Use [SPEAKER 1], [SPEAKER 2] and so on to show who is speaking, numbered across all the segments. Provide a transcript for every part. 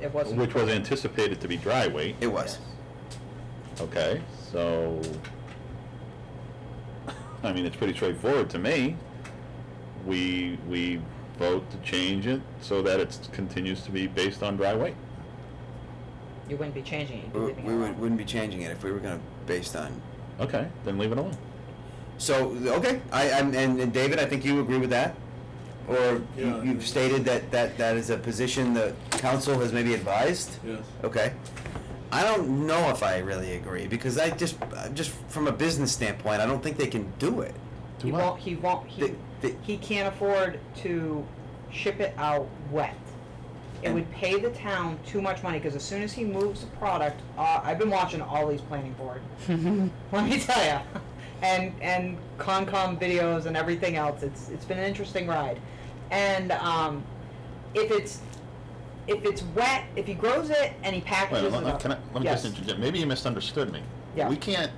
[SPEAKER 1] It wasn't.
[SPEAKER 2] Which was anticipated to be dry weight,
[SPEAKER 3] It was.
[SPEAKER 2] okay, so, I mean, it's pretty straightforward to me. We, we vote to change it so that it continues to be based on dry weight.
[SPEAKER 1] You wouldn't be changing it, you'd be
[SPEAKER 3] We
[SPEAKER 1] leaving it
[SPEAKER 3] we would-
[SPEAKER 1] alone.
[SPEAKER 3] wouldn't be changing it if we were gonna, based on.
[SPEAKER 2] Okay, then leave it alone.
[SPEAKER 3] So, okay, I, I'm, and and David, I think you agree with that? Or you-
[SPEAKER 4] Yeah.
[SPEAKER 3] you've stated that, that, that is a position the council has maybe advised?
[SPEAKER 4] Yes.
[SPEAKER 3] Okay. I don't know if I really agree because I just, I just from a business standpoint, I don't think they can do it.
[SPEAKER 2] Do
[SPEAKER 1] He
[SPEAKER 2] what?
[SPEAKER 1] won't, he won't, he,
[SPEAKER 3] The- the-
[SPEAKER 1] he can't afford to ship it out wet. It would pay the town too much money, because as soon as he moves the product, uh, I've been watching all these planning board. Let me tell ya. And, and Concom videos and everything else, it's, it's been an interesting ride. And, um, if it's, if it's wet, if he grows it and he
[SPEAKER 2] Wait,
[SPEAKER 1] packages it
[SPEAKER 2] let, let-
[SPEAKER 1] up.
[SPEAKER 2] can I, let me just
[SPEAKER 1] Yes.
[SPEAKER 2] interject, maybe you misunderstood me.
[SPEAKER 1] Yeah.
[SPEAKER 2] We can't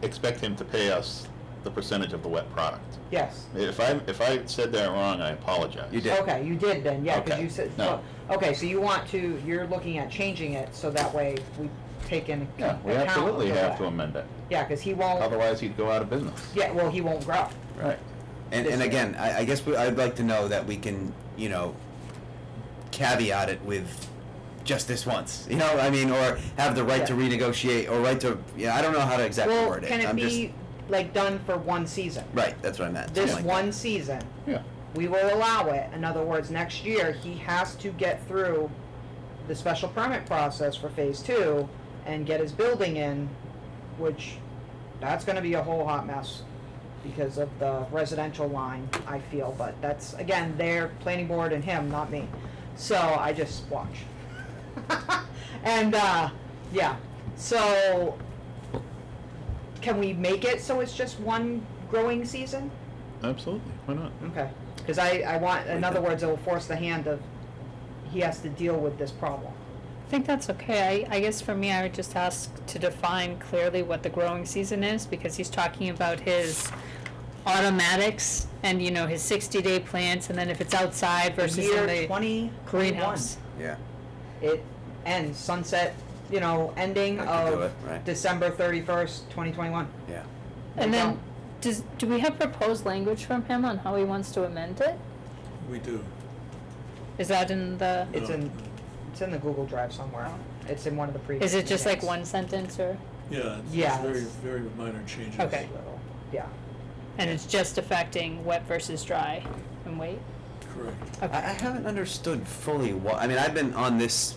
[SPEAKER 2] expect him to pay us the percentage of the wet product.
[SPEAKER 1] Yes.
[SPEAKER 2] If I, if I said that wrong, I apologize.
[SPEAKER 3] You did. Yeah.
[SPEAKER 1] Okay, you did then, yeah, because
[SPEAKER 2] Okay,
[SPEAKER 1] you said,
[SPEAKER 2] no.
[SPEAKER 1] so- okay, so you want to, you're looking at changing it, so that way we take in account.
[SPEAKER 2] Yeah, we absolutely
[SPEAKER 1] of
[SPEAKER 2] have to
[SPEAKER 1] that.
[SPEAKER 2] amend it,
[SPEAKER 1] Yeah, because he won't,
[SPEAKER 2] otherwise he'd go out of business.
[SPEAKER 1] yeah, well, he won't grow.
[SPEAKER 2] Right.
[SPEAKER 3] And, and again, I, I guess we, I'd like to know that we can, you know, caveat it with just this once. You know, I mean, or have the right to
[SPEAKER 1] Yeah.
[SPEAKER 3] renegotiate or right to, yeah, I don't know how to exactly
[SPEAKER 1] Well,
[SPEAKER 3] word it.
[SPEAKER 1] can it
[SPEAKER 3] I'm
[SPEAKER 1] be, like, done for one season?
[SPEAKER 3] just, right, that's what I meant.
[SPEAKER 1] This
[SPEAKER 3] something like
[SPEAKER 1] one season,
[SPEAKER 2] Yeah.
[SPEAKER 1] we will allow it, in other words, next year, he has to get through the special permit process for phase two and get his building in, which, that's gonna be a whole hot mess because of the residential line, I feel, but that's, again, their planning board and him, not me. So I just watch. and, uh, yeah, so can we make it so it's just one growing season?
[SPEAKER 2] Absolutely, why not?
[SPEAKER 1] Okay, because I, I want, in other words, it will force the hand of, he has to deal with this problem.
[SPEAKER 5] I think that's okay. I, I guess for me, I would just ask to define clearly what the growing season is, because he's talking about his automatics and, you know, his sixty-day plants, and then if it's outside versus in
[SPEAKER 1] Year
[SPEAKER 5] the
[SPEAKER 1] twenty
[SPEAKER 5] greenhouse.
[SPEAKER 3] that. Yeah.
[SPEAKER 1] It ends sunset, you know, ending
[SPEAKER 3] I could do
[SPEAKER 1] of
[SPEAKER 3] it, right.
[SPEAKER 1] December thirty-first, twenty twenty-one.
[SPEAKER 3] Yeah.
[SPEAKER 5] And
[SPEAKER 1] We
[SPEAKER 5] then,
[SPEAKER 1] don't.
[SPEAKER 5] does, do we have proposed language from him on how he wants to amend it?
[SPEAKER 4] We do.
[SPEAKER 5] Is that in the,
[SPEAKER 1] It's
[SPEAKER 4] No.
[SPEAKER 1] in, it's in the Google Drive somewhere. It's in one of the previous.
[SPEAKER 5] is it just like
[SPEAKER 1] meetings.
[SPEAKER 5] one sentence or,
[SPEAKER 4] Yeah, it's-
[SPEAKER 1] Yeah,
[SPEAKER 4] it's very,
[SPEAKER 1] it's-
[SPEAKER 4] very minor changes.
[SPEAKER 5] Okay.
[SPEAKER 1] Yeah.
[SPEAKER 5] and it's just affecting wet versus dry and weight?
[SPEAKER 4] Correct.
[SPEAKER 3] I, I haven't understood fully what, I mean, I've been on this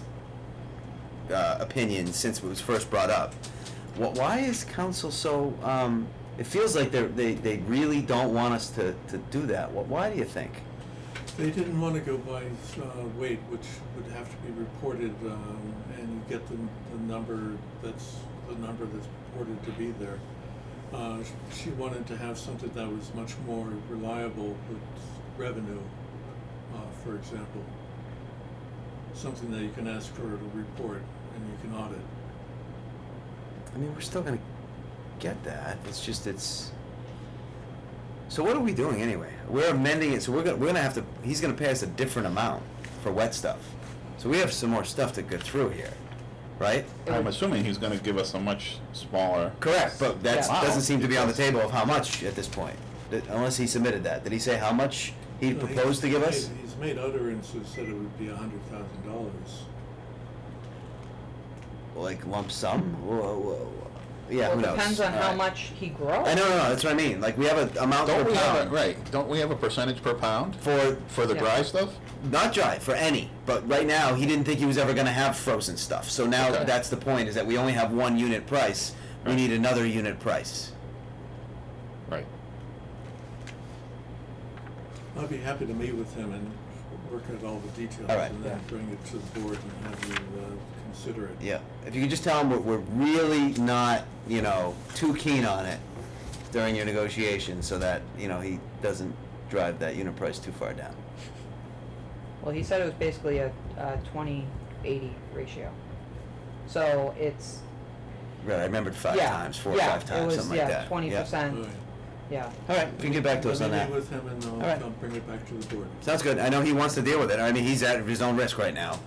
[SPEAKER 3] uh, opinion since it was first brought up. Wh- why is council so, um, it feels like they're, they, they really don't want us to, to do that. Wh- why do you think?
[SPEAKER 4] They didn't want to go by uh, weight, which would have to be reported, um, and you get the, the number that's, the number that's reported to be there. Uh, sh- She wanted to have something that was much more reliable with revenue, uh, for example. Something that you can ask for to report and you can audit.
[SPEAKER 3] I mean, we're still gonna get that. It's just it's. So what are we doing anyway? We're amending it, so we're gonna we're gonna have to. He's gonna pay us a different amount for wet stuff. So we have some more stuff to go through here, right?
[SPEAKER 1] It
[SPEAKER 2] I'm
[SPEAKER 1] would-
[SPEAKER 2] assuming he's gonna give us a much smaller.
[SPEAKER 3] Correct, but that
[SPEAKER 1] Yeah.
[SPEAKER 3] doesn't seem to be on the table of how much at this point, That- unless he submitted that. Did he say how much he
[SPEAKER 4] No,
[SPEAKER 3] proposed to give us?
[SPEAKER 4] made- He's made utterances that it would be a hundred thousand dollars.
[SPEAKER 3] Like lump sum? Whoa, whoa, whoa. Yeah,
[SPEAKER 1] Well,
[SPEAKER 3] who
[SPEAKER 1] it
[SPEAKER 3] knows?
[SPEAKER 1] Depends on
[SPEAKER 3] All
[SPEAKER 1] how
[SPEAKER 3] right.
[SPEAKER 1] much he grows.
[SPEAKER 3] I know, no, no, that's what I mean. Like we have an amount
[SPEAKER 2] Don't
[SPEAKER 3] per
[SPEAKER 2] we have, a-
[SPEAKER 3] pound
[SPEAKER 2] right, don't we have a percentage per pound
[SPEAKER 3] for
[SPEAKER 2] for the
[SPEAKER 5] Yeah.
[SPEAKER 2] dry stuff?
[SPEAKER 3] not dry for any but right now he didn't think he was ever going to have frozen stuff so now
[SPEAKER 2] Okay.
[SPEAKER 3] that's the point is that we only have one unit price we
[SPEAKER 2] Right.
[SPEAKER 3] need another unit price
[SPEAKER 2] Right.
[SPEAKER 4] I'd be happy to meet with him and work out all the details
[SPEAKER 3] All right,
[SPEAKER 4] and then
[SPEAKER 3] yeah.
[SPEAKER 4] bring it to the board and have you uh, consider it.
[SPEAKER 3] yeah if you could just tell him we're, we're really not you know too keen on it during your negotiations so that you know he doesn't drive that unit price too far down
[SPEAKER 1] Well, he said it was basically a, a twenty, eighty ratio. So it's,
[SPEAKER 3] right i remembered five
[SPEAKER 1] yeah,
[SPEAKER 3] times four or
[SPEAKER 1] yeah,
[SPEAKER 3] five times
[SPEAKER 1] it was,
[SPEAKER 3] something
[SPEAKER 1] yeah,
[SPEAKER 3] like that
[SPEAKER 1] Twenty
[SPEAKER 3] yeah.
[SPEAKER 4] All
[SPEAKER 1] percent,
[SPEAKER 4] right.
[SPEAKER 1] yeah.
[SPEAKER 3] all right if you can get back to us
[SPEAKER 4] Let
[SPEAKER 3] on
[SPEAKER 4] me
[SPEAKER 3] that
[SPEAKER 4] meet with him and
[SPEAKER 3] All right.
[SPEAKER 4] I'll I'll bring it back to the board.
[SPEAKER 3] sounds good i know he wants to deal with it i mean he's at his own risk right now